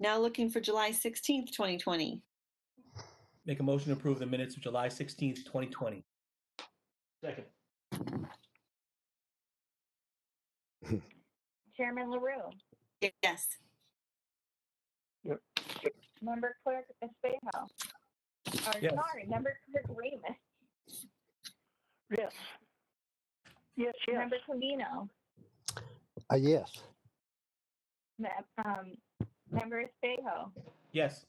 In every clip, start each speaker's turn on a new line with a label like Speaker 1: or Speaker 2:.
Speaker 1: Now looking for July 16th, 2020.
Speaker 2: Make a motion to approve the minutes of July 16th, 2020.
Speaker 3: Second.
Speaker 4: Chairman LaRue,
Speaker 1: Yes.
Speaker 4: Member Clerk Espejo. Or
Speaker 2: Yes.
Speaker 4: sorry, Member Clerk Ramus,
Speaker 5: Yes. Yes, yes.
Speaker 4: Member Covino,
Speaker 6: Uh, yes.
Speaker 4: Me- um, Member Espejo,
Speaker 2: Yes.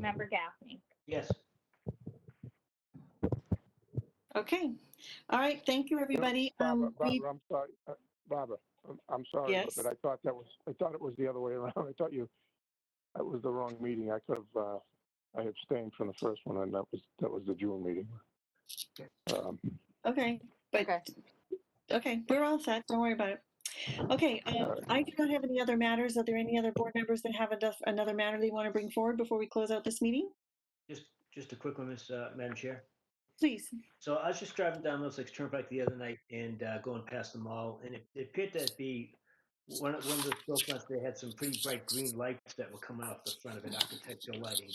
Speaker 4: Member Gaffney.
Speaker 3: Yes.
Speaker 1: Okay. All right. Thank you, everybody.
Speaker 5: Barbara,
Speaker 1: Um, we-
Speaker 5: Barbara, I'm sorry. Uh, Barbara, I'm, I'm sorry,
Speaker 1: Yes.
Speaker 5: but I thought that was, I thought it was the other way around. I thought you, that was the wrong meeting. I could have, uh, I abstained from the first one and that was, that was the June meeting. Um,
Speaker 1: Okay, but,
Speaker 7: Okay.
Speaker 1: okay, we're all set. Don't worry about it. Okay, uh,
Speaker 5: Alright.
Speaker 1: I do not have any other matters. Are there any other board members that have anoth- another matter they want to bring forward before we close out this meeting?
Speaker 3: Just, just a quick one, Miss, uh, Madam Chair.
Speaker 1: Please.
Speaker 3: So I was just driving down Middlesex Turnpike the other night and uh, going past the mall, and it, it appeared to be one of, one of the storefronts. They had some pretty bright green lights that were coming off the front of it, architectural lighting.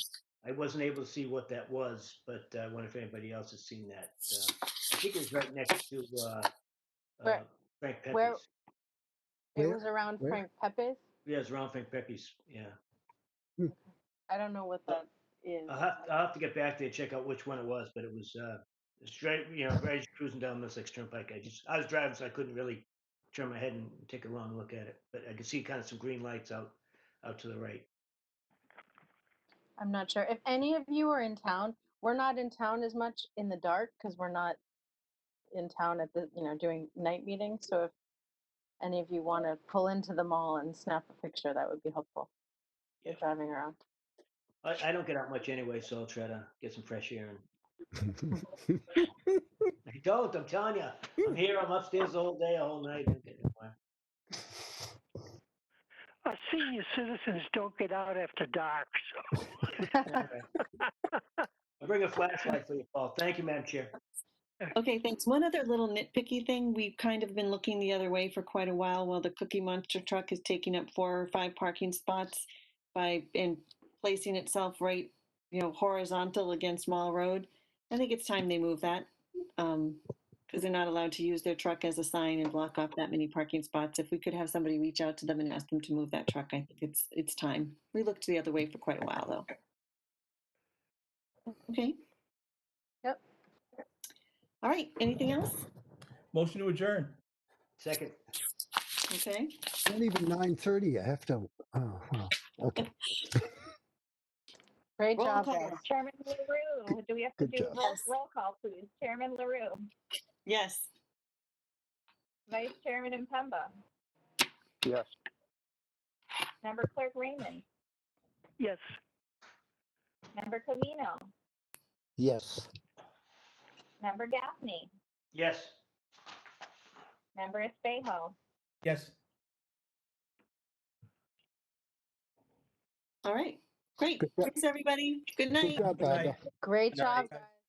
Speaker 3: I wasn't able to see what that was, but I uh, wonder if anybody else has seen that. Uh, I think it was right next to uh, uh,
Speaker 7: Where-
Speaker 3: Frank Pepe's.
Speaker 7: where- It
Speaker 6: Where-
Speaker 7: was around
Speaker 6: where?
Speaker 7: Frank Pepe's.
Speaker 3: Yeah, it's around Frank Pepe's. Yeah,
Speaker 7: I don't know what that is.
Speaker 3: I'll have, I'll have to get back there and check out which one it was, but it was uh, straight, you know, right as you're cruising down Middlesex Turnpike. I just, I was driving, so I couldn't really turn my head and take a long look at it, but I could see kind of some green lights out, out to the right.
Speaker 7: I'm not sure. If any of you are in town, we're not in town as much in the dark because we're not in town at the, you know, doing night meetings. So if any of you want to pull into the mall and snap a picture, that would be helpful. You're
Speaker 3: Yeah.
Speaker 7: driving around.
Speaker 3: I, I don't get out much anyway, so I'll try to get some fresh air. And I don't. I'm telling you, I'm here. I'm upstairs the whole day, all night. I'm getting nowhere.
Speaker 5: Our senior citizens don't get out after dark, so.
Speaker 3: I'll bring a flashlight for you, Paul. Thank you, Madam Chair.
Speaker 1: Okay, thanks. One other little nitpicky thing, we've kind of been looking the other way for quite a while while the Cookie Monster truck is taking up four or five parking spots by, and placing itself right, you know, horizontal against Mall Road. I think it's time they move that, um, because they're not allowed to use their truck as a sign and block off that many parking spots. If we could have somebody reach out to them and ask them to move that truck, I think it's, it's time. We looked the other way for quite a while, though. Okay?
Speaker 7: Yep.
Speaker 1: All right, anything else?
Speaker 2: Motion to adjourn.
Speaker 3: Second.
Speaker 1: Okay.
Speaker 6: Not even 9:30. I have to. Oh, wow. Okay.
Speaker 7: Great
Speaker 1: Roll
Speaker 7: job,
Speaker 1: call.
Speaker 7: guys.
Speaker 4: Chairman LaRue, do we have to
Speaker 6: Good
Speaker 4: do
Speaker 6: job.
Speaker 4: roll-
Speaker 1: Yes.
Speaker 4: roll call, please? Chairman LaRue,
Speaker 1: Yes.
Speaker 4: Vice Chairman Impemba,
Speaker 5: Yes.
Speaker 4: Member Clerk Raymond,
Speaker 5: Yes.
Speaker 4: Member Covino,
Speaker 6: Yes.
Speaker 4: Member Gaffney,
Speaker 3: Yes.
Speaker 4: Member Espejo,
Speaker 2: Yes.
Speaker 1: All right. Great.
Speaker 6: Good job.
Speaker 1: Thanks, everybody. Good
Speaker 6: Good
Speaker 1: night.
Speaker 6: job,
Speaker 2: Good night.
Speaker 6: Barbara.
Speaker 7: Great
Speaker 2: Good night.
Speaker 7: job, guys.